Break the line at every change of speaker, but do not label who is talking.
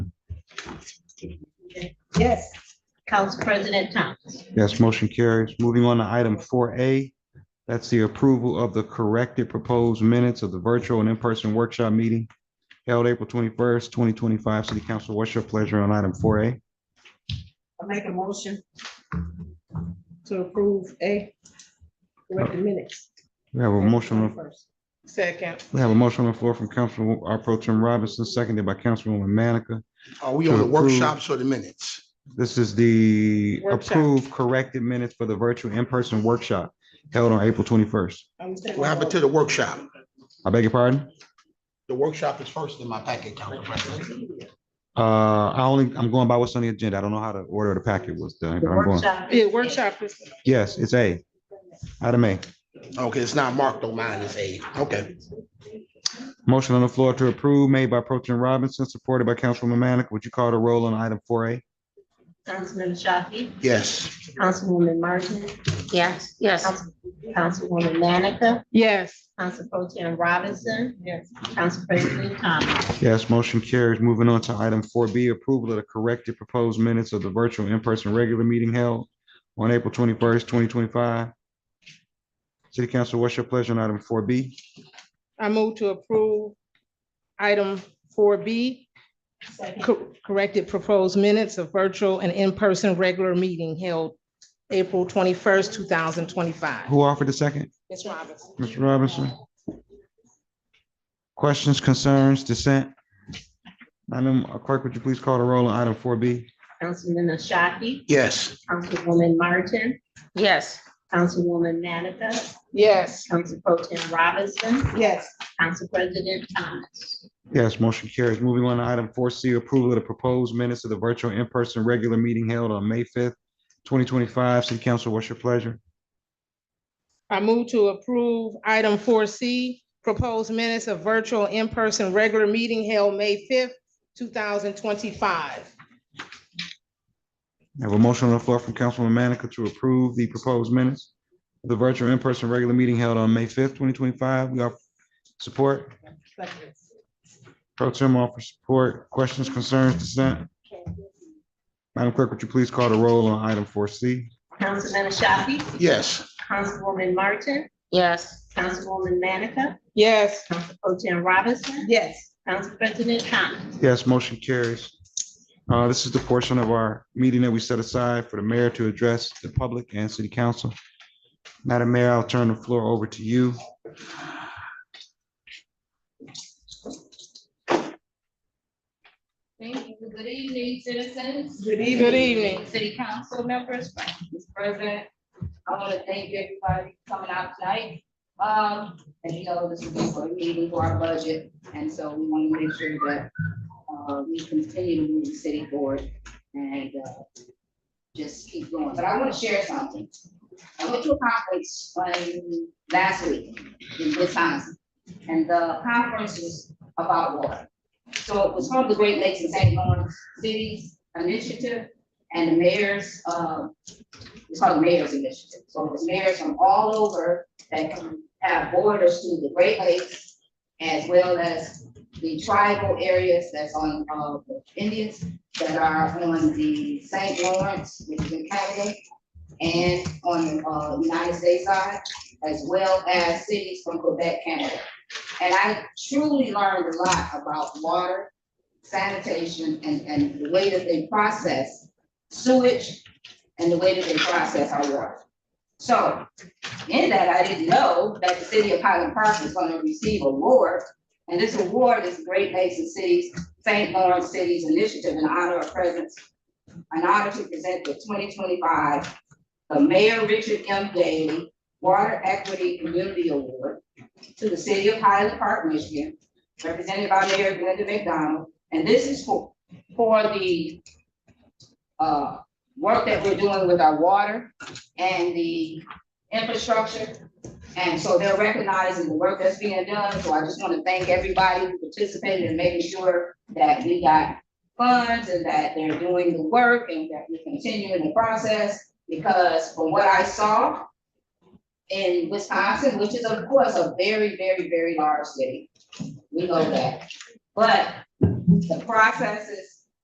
Yes.
Council President Thomas.
Yes, motion carries. Moving on to item four A, that's the approval of the corrected proposed minutes of the virtual and in-person workshop meeting held April twenty-first, twenty twenty-five. City Council, what's your pleasure on item four A?
I make a motion to approve A, correct the minutes.
We have a motion, on-
First.
Second.
we have a motion on the floor from Councilman R. Pro Tim Robinson, seconded by Councilwoman Manica.
Are we
To
on the
approve.
workshops or the minutes?
This is the
Workshop.
approved corrected minutes for the virtual in-person workshop held on April twenty-first.
What happened to the workshop?
I beg your pardon?
The workshop is first in my packet, Council President.
Uh, I only, I'm going by what's on the agenda. I don't know how the order of the packet was done. but I'm going-
Yeah, workshop is,
Yes, it's A. Item A.
Okay, it's not marked on mine, it's eight. Okay.
Motion on the floor to approve made by Pro Tem Robinson, supported by Councilwoman Manica. Would you call the roll on item four A?
Councilman Shafi,
Yes,
Councilwoman Martin,
Yes, yes,
Councilwoman Manica,
yes,
Council Pro Tim Robinson,
Yes.
Council President Thomas.
Yes, motion carries. Moving on to item four B, approval of the corrected proposed minutes of the virtual in-person regular meeting held on April twenty-first, twenty twenty-five. City Council, what's your pleasure on item four B?
I move to approve item four B, corrected proposed minutes of virtual and in-person regular meeting held April twenty-first, two thousand twenty-five.
Who offered the second?
Ms. Robinson.
Mr. Robinson? Questions, concerns, dissent? Madam Clerk, would you please call the roll on item four B?
Councilman Shafi,
yes.
Councilwoman Martin,
yes.
Councilwoman Manica,
Yes,
Council Pro Tim Robinson,
Yes.
Council President Thomas.
Yes, motion carries. Moving on to item four C, approval of the proposed minutes of the virtual in-person regular meeting held on May fifth, twenty twenty-five. City Council, what's your pleasure?
I move to approve item four C, proposed minutes of virtual in-person regular meeting held May fifth, two thousand twenty-five.
I have a motion on the floor from Councilwoman Manica to approve the proposed minutes of the virtual in-person regular meeting held on May fifth, twenty twenty-five. We have support. Pro Tem offer support. Questions, concerns, dissent? Madam Clerk, would you please call the roll on item four C?
Councilman Shafi,
Yes,
Councilwoman Martin,
Yes,
Councilwoman Manica,
Yes,
Council Pro Tim Robinson,
Yes.
Council President Thomas.
Yes, motion carries. Uh, This is the portion of our meeting that we set aside for the mayor to address the public and city council. Madam Mayor, I'll turn the floor over to you.
Thank you. Good evening, citizens.
Good
good evening.
City council members, Mr. President, I want to thank everybody for coming out tonight. Um, and you know, this is for a meeting for our budget, and so we want to make sure that uh, we continue to move the city forward and uh, just keep going. But I want to share something. I went to a conference on last week in Wisconsin, and the conference was about water. So it was from the Great Lakes and St. Lawrence Cities Initiative and the mayor's, uh, it's called the mayor's initiative. So it was mayors from all over that can have borders to the Great Lakes as well as the tribal areas that's on, uh, the Indians that are on the St. Lawrence, which is in Canada, and on, the, uh, United States side, as well as cities from Quebec, Canada. And I truly learned a lot about water, sanitation, and, and the way that they process sewage and the way that they process our water. So in that, I didn't know that the city of Highland Park was gonna receive award. And this award is Great Lakes and Cities, St. Lawrence Cities Initiative in honor of presence, an honor to present the twenty twenty-five, the Mayor Richard M. Daley Water Equity Community Award to the city of Highland Park, Michigan, represented by Mayor Glenda McDonald. And this is for, for the uh, work that we're doing with our water and the infrastructure. And so they're recognizing the work that's being done, so I just want to thank everybody who participated in making sure that we got funds and that they're doing the work and that we're continuing the process. Because from what I saw in Wisconsin, which is of course a very, very, very large city, we know that. But the processes